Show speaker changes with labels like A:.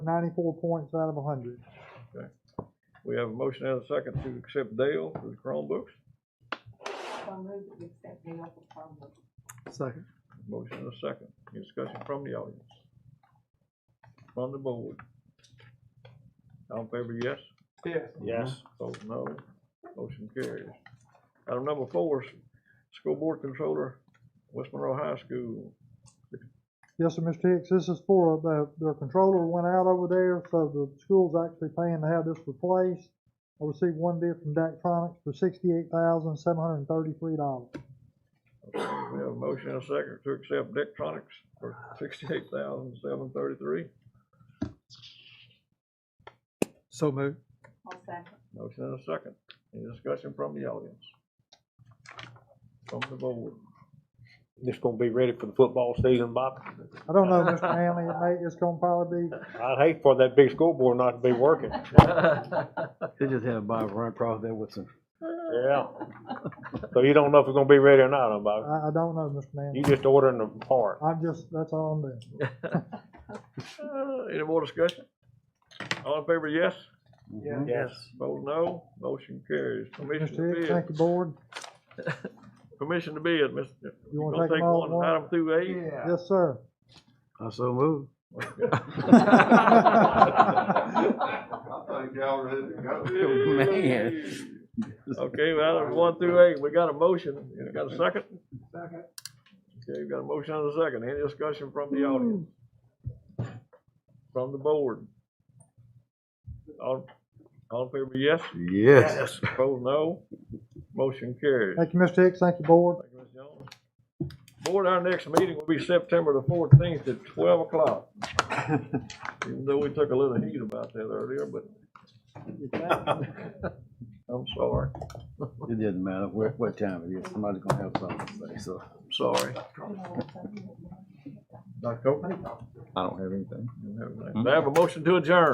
A: Ninety-four points out of a hundred.
B: We have a motion and a second to accept Dale for the Chromebooks.
C: So moved that we accept the offer from the
A: Second.
B: Motion and a second. Any discussion from the audience? From the board? All in favor, yes?
A: Yes.
D: Yes.
B: Opposed, no. Motion carries. Item number four, s- School Board Controller, West Monroe High School.
A: Yes, sir, Mr. Hicks, this is for, the, their controller went out over there, so the school's actually paying to have this replaced. I received one bid from Daktronics for sixty-eight thousand, seven hundred and thirty-three dollars.
B: We have a motion and a second to accept Dectronics for sixty-eight thousand seven thirty-three.
A: So moved.
C: whole second.
B: Motion and a second. Any discussion from the audience? From the board?
D: This gonna be ready for the football season, Bob.
A: I don't know, Mr. Manley, it may, it's gonna probably be,
D: I'd hate for that big school board not to be working.
E: They just had a Bob run across there with some.
D: Yeah. So you don't know if it's gonna be ready or not, huh, Bob.
A: I, I don't know, Mr. Manley.
D: You just ordering the part.
A: I'm just, that's all I'm doing.
B: Uh, Any more discussion? All in favor, yes?
D: Yes.
B: Vote no. Motion carries. Permission
A: Mr.
B: to
A: Hicks,
B: bid.
A: thank you, board.
B: Permission to bid, Mr.
A: You
B: Gonna
A: wanna take them all at
B: one,
A: once?
B: Item through eight.
A: Yes, sir.
E: Mm-hmm. I so moved. Man.
B: Okay, well, item one through eight, we got a motion, you got a second? Second. Okay, we got a motion and a second, any discussion from
A: Hmm.
B: the audience? From the board? All, all in favor, yes?
E: Yes.
B: Opposed, no? Motion carries.
A: Thank you, Mr. Hicks, thank you, board.
B: Thank you, Ms. Jones. Board, our next meeting will be September the fourteenth at twelve o'clock. Even though we took a little heat about that earlier, but. I'm sorry,
E: It doesn't matter where, what time it is, somebody's gonna have something to say, so.
B: I'm sorry. Dr. Copeland?
E: I don't have anything.
B: May I have a motion to adjourn?